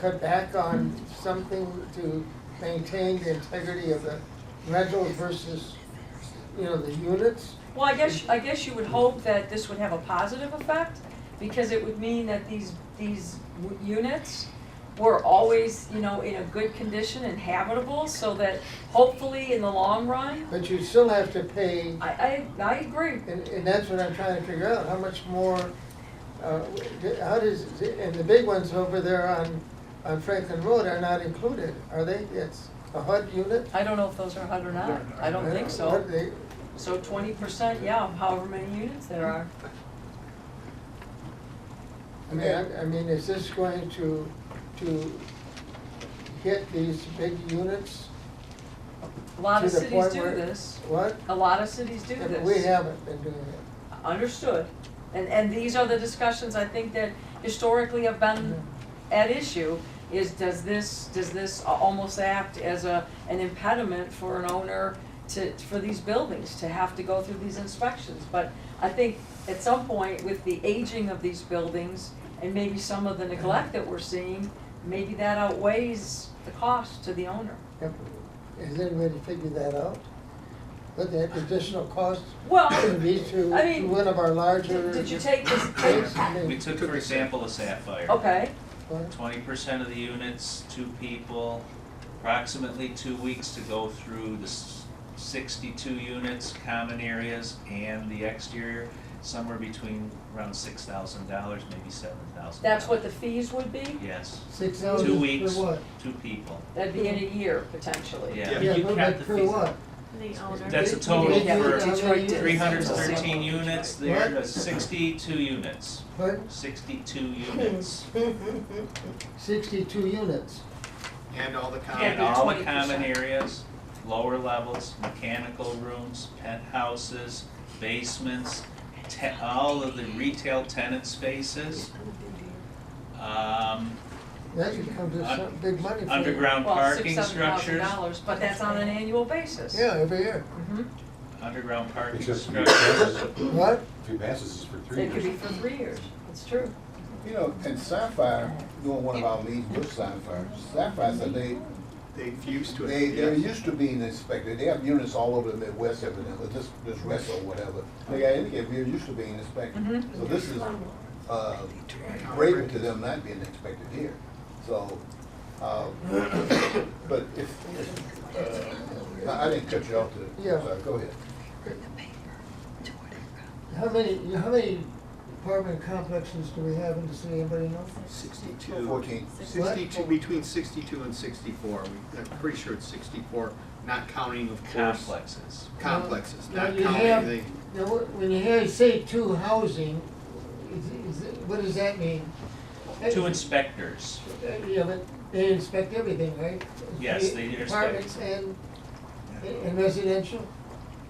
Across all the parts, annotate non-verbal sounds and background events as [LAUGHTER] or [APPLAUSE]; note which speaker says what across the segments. Speaker 1: cut back on something to maintain the integrity of the rental versus, you know, the units?
Speaker 2: Well, I guess, I guess you would hope that this would have a positive effect, because it would mean that these, these w- units were always, you know, in a good condition and habitable, so that hopefully in the long run,
Speaker 1: But you still have to pay,
Speaker 2: I, I, I agree.
Speaker 1: and, and that's what I'm trying to figure out, how much more, uh, how does, and the big ones over there on, on Franklin Road are not included, are they? It's a HUD unit? Uh,
Speaker 2: I don't know if those are HUD or not, I don't think so.
Speaker 1: What they-
Speaker 2: So twenty percent, yeah, of however many units there are.
Speaker 1: I mean, I, I mean, is this going to, to hit these big units?
Speaker 2: A lot
Speaker 1: To
Speaker 2: of
Speaker 1: the
Speaker 2: cities
Speaker 1: point
Speaker 2: do
Speaker 1: where-
Speaker 2: this,
Speaker 1: What?
Speaker 2: a lot of cities do this.
Speaker 1: We haven't been doing it.
Speaker 2: Understood. And, and these are the discussions I think that historically have been at issue, is does this, does this a- almost act as a, an impediment for an owner to, for these buildings, to have to go through these inspections? But I think at some point with the aging of these buildings and maybe some of the neglect that we're seeing, maybe that outweighs the cost to the owner.
Speaker 1: Yep. Has anybody figured that out? What the additional cost
Speaker 2: [COUGHS] Well,
Speaker 1: would be to
Speaker 2: I mean,
Speaker 1: to one of our larger.
Speaker 2: did did you take this, take,
Speaker 1: Yes, I mean,
Speaker 3: We took, for example, a sapphire.
Speaker 2: okay,
Speaker 1: what?
Speaker 3: Twenty percent of the units, two people, approximately two weeks to go through the s- sixty-two units, common areas and the exterior, somewhere between around six thousand dollars, maybe seven thousand.
Speaker 2: that's what the fees would be?
Speaker 3: Yes,
Speaker 1: Six thousand
Speaker 3: two
Speaker 1: Oh, for
Speaker 3: weeks,
Speaker 1: what?
Speaker 3: two people,
Speaker 2: That'd be in a year potentially.
Speaker 3: yeah.
Speaker 4: Yeah.
Speaker 1: Yeah,
Speaker 4: you
Speaker 1: but
Speaker 4: count
Speaker 1: but
Speaker 4: the
Speaker 1: for
Speaker 4: fees.
Speaker 1: what?
Speaker 5: The owner.
Speaker 3: That's a
Speaker 1: Did-
Speaker 3: total
Speaker 1: did you-
Speaker 3: for
Speaker 1: how many
Speaker 2: Detroit
Speaker 1: units?
Speaker 3: Three hundred and thirteen units,
Speaker 1: What?
Speaker 3: there's sixty-two units,
Speaker 1: What?
Speaker 3: sixty-two units.
Speaker 1: Sixty-two units.
Speaker 4: And all the
Speaker 3: And
Speaker 2: Yeah.
Speaker 4: comments.
Speaker 3: all the
Speaker 2: 20%.
Speaker 3: common areas, lower levels, mechanical rooms, penthouses, basements, te- all of the retail tenant spaces. Um,
Speaker 1: That could come to some big money for you.
Speaker 3: underground
Speaker 2: Well,
Speaker 3: parking
Speaker 2: six, seven thousand
Speaker 3: structures,
Speaker 2: dollars, but that's on an annual basis.
Speaker 1: Yeah, every year.
Speaker 2: Mhm.
Speaker 3: underground parking
Speaker 6: Except
Speaker 3: structures.
Speaker 6: for your passes,
Speaker 1: What?
Speaker 6: if your passes is for three
Speaker 2: It could be
Speaker 6: years.
Speaker 2: for three years, it's true.
Speaker 7: You know, and Sapphire, doing one of our leads with Sapphire, Sapphire said they,
Speaker 4: They've used to
Speaker 7: they,
Speaker 4: it,
Speaker 7: they're
Speaker 4: yes.
Speaker 7: used to being inspected, they have units all over the Midwest evidently, this, this rest or whatever. They got indicated, they're used to being inspected,
Speaker 2: Mhm.
Speaker 7: so this is, uh, breaking to them not being inspected here, so, uh, [COUGHS] but if, uh, I I didn't cut you off to,
Speaker 1: Yeah.
Speaker 7: uh, go ahead.
Speaker 1: How many, how many apartment complexes do we have in the city? Anybody know?
Speaker 4: Sixty-two.
Speaker 7: Fourteen,
Speaker 4: Sixty-two, between sixty-two and sixty-four, We- I'm pretty sure it's sixty-four, not counting, of course,
Speaker 3: Complexes.
Speaker 4: complexes,
Speaker 1: Now,
Speaker 4: not
Speaker 1: you have-
Speaker 4: counting the.
Speaker 1: Now, wh- when you hear, say two housing, is, is, what does that mean?
Speaker 3: Two inspectors,
Speaker 1: Uh, Yeah, but they inspect everything, right?
Speaker 3: Yes, they inspect.
Speaker 1: Apartments and, and residential?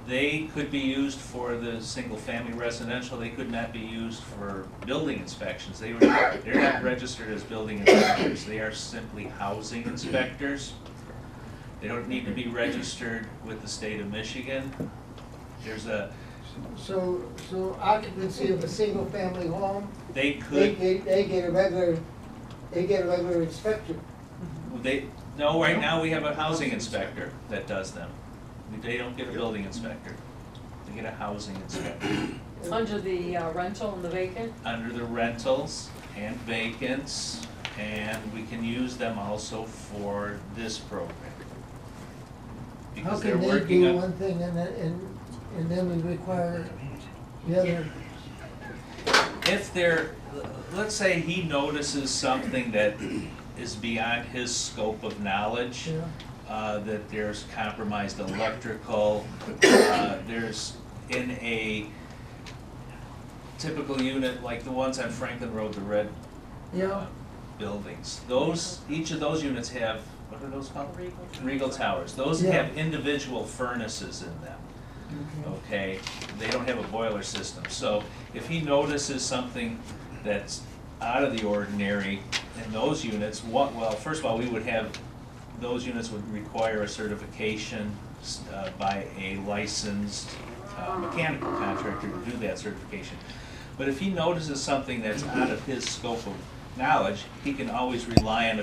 Speaker 3: they could be used for the single-family residential, they could not be used for building inspections. They were, they're not registered as building inspectors, they are simply housing inspectors. They don't need to be registered with the state of Michigan. There's a,
Speaker 1: So, so occupancy of a single-family home,
Speaker 3: they
Speaker 1: they,
Speaker 3: could,
Speaker 1: they, they get a regular, they get a regular inspector.
Speaker 3: they, no, right now we have a housing inspector that does them. They don't get a building inspector, they get a housing inspector.
Speaker 2: Under the uh, rental and the vacant,
Speaker 3: under the rentals and vacants, and we can use them also for this program.
Speaker 1: How
Speaker 3: Because they're
Speaker 1: can they do
Speaker 3: working
Speaker 1: one
Speaker 3: on,
Speaker 1: thing and then, and, and then we require the other?
Speaker 3: if they're, let's say he notices something that is beyond his scope of knowledge,
Speaker 1: Yeah.
Speaker 3: uh, that there's compromised electrical, uh, there's in a typical unit, like the ones on Franklin Road, the red
Speaker 1: Yeah,
Speaker 3: uh, buildings. Those, each of those units have, what are those called? Regal Towers. Those
Speaker 1: Yeah.
Speaker 3: have individual furnaces in them,
Speaker 1: okay.
Speaker 3: okay? They don't have a boiler system. So if he notices something that's out of the ordinary in those units, what, well, first of all, we would have, those units would require a certification s- uh, by a licensed uh, mechanical contractor to do that certification. But if he notices something that's out of his scope of knowledge, he can always rely on a